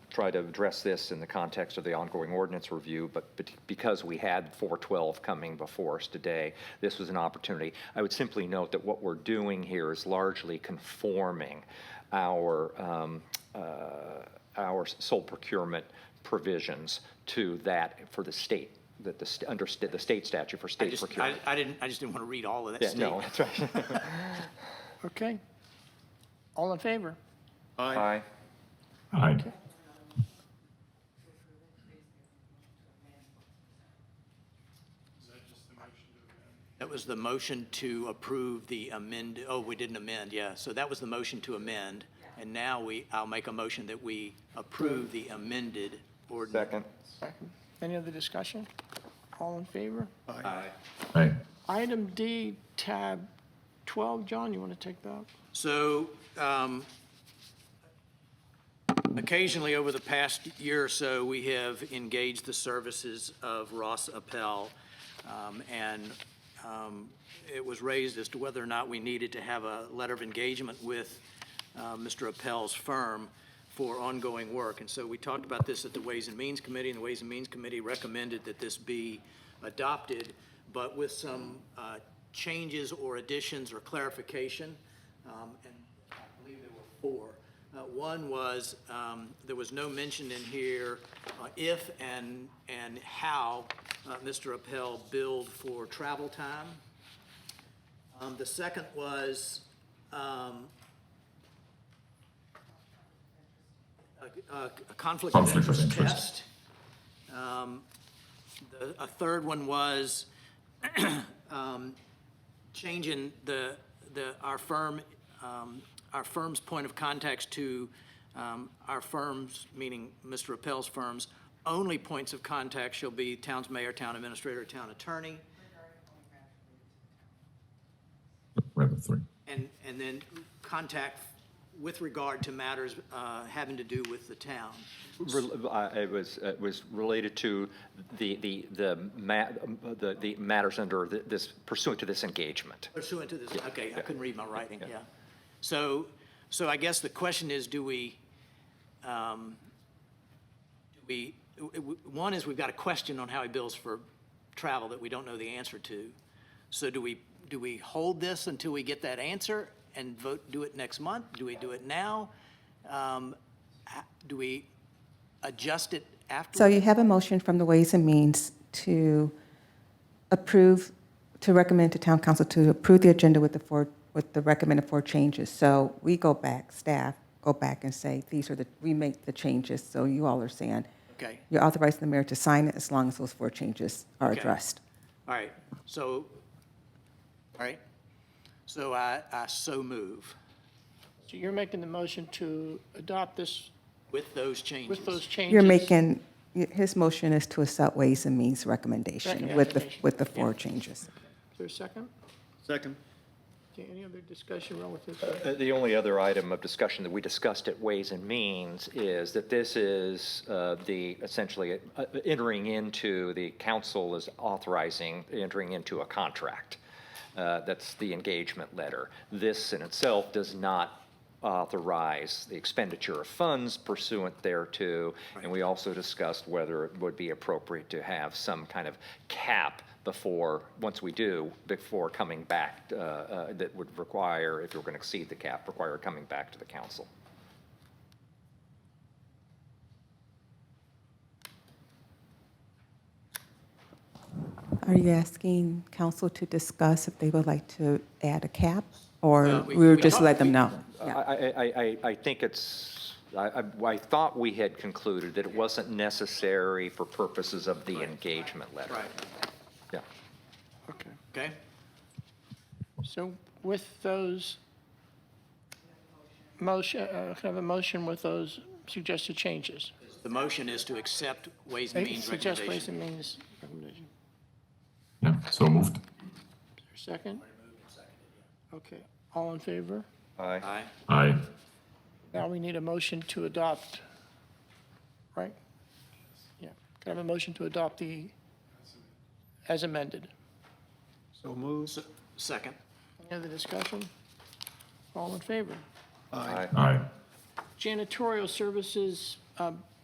try to address this in the context of the ongoing ordinance review, but bet- because we had 412 coming before us today, this was an opportunity. I would simply note that what we're doing here is largely conforming our, um, uh, our sole procurement provisions to that for the state, that the, st- under st- the state statute for I state just, procurement. I, I didn't, I just didn't want to read all of that Yeah, no, statement. that's right. Okay. All in favor? Aye. Aye. That was the motion to approve the amend, oh, we didn't amend, yeah. So that was the motion to amend. And now we, I'll make a motion that we approve the amended ordinance. Second. Any other discussion? All in favor? Aye. Item D, tab 12, John, you want to take that? So um, occasionally, over the past year or so, we have engaged the services of Ross Appel. um, And um, it was raised as to whether or not we needed to have a letter of engagement with uh, Mr. Appel's firm for ongoing work. And so we talked about this at the Ways and Means Committee, and the Ways and Means Committee recommended that this be adopted, but with some uh, changes or additions or clarification. Um, And I believe there were four. Uh, One was, um, there was no mention in here uh, if and, and how uh, Mr. Appel billed for travel time. Um, The second was, um, a- a a conflict of Conflict of interest interest. test. Um, the- A third one was um, changing the, the, our firm, um, our firm's point of contacts to um, our firms, meaning Mr. Appel's firms, only points of contact shall be town's mayor, town administrator, town attorney. Number three. And, and then contact with regard to matters uh, having to do with the town. Rel- uh, It was, it was related to the, the, the ma, the, the matters under th- this pursuant to this engagement. Pursuant to this, okay, I couldn't read my writing, yeah. So, so I guess the question is, do we, um, do we, w- w- one is we've got a question on how he bills for travel that we don't know the answer to. So do we, do we hold this until we get that answer and vote, do it next month? Do we do it now? Um, h- Do we adjust it after? So you have a motion from the Ways and Means to approve, to recommend to town council to approve the agenda with the four, with the recommended four changes. So we go back, staff go back and say, these are the, we make the changes, so you all are saying. Okay. You're authorizing the mayor to sign it as long as those four changes are Okay. addressed. All right, so, all right, so I, I so move. So you're making the motion to adopt this With those changes. with those changes? You're making, his motion is to accept Ways and Means recommendation with the, with the four changes. Is there a second? Second. Okay, Any other discussion relative to? Uh, The only other item of discussion that we discussed at Ways and Means is that this is uh, the, essentially, uh, entering into, the council is authorizing entering into a contract. Uh, That's the engagement letter. This in itself does not authorize the expenditure of funds pursuant thereto. And we also discussed whether it would be appropriate to have some kind of cap before, once we do, before coming back, uh, uh, that would require, if you're going to exceed the cap, require coming back to the council. Are you asking council to discuss if they would like to add a cap? Or Well, we- we'll we just talked- let them know? Uh, I, Yeah. I- I, I, I think it's, I, I- I thought we had concluded that it wasn't necessary for purposes of the engagement letter. Right, Yeah. Okay. okay, So with those motion, uh, have a motion with those suggested changes? the motion is to accept Ways and Means Suggest Ways recommendation. and Means recommendation. Yeah, so moved. Is there a second? Okay, all in favor? Aye. Aye, Aye. Now we need a motion to adopt, right? Yeah, can I have a motion to adopt the, as amended? So moved. S- second, Any other discussion? All in favor? Aye. Aye. Janitorial services, um,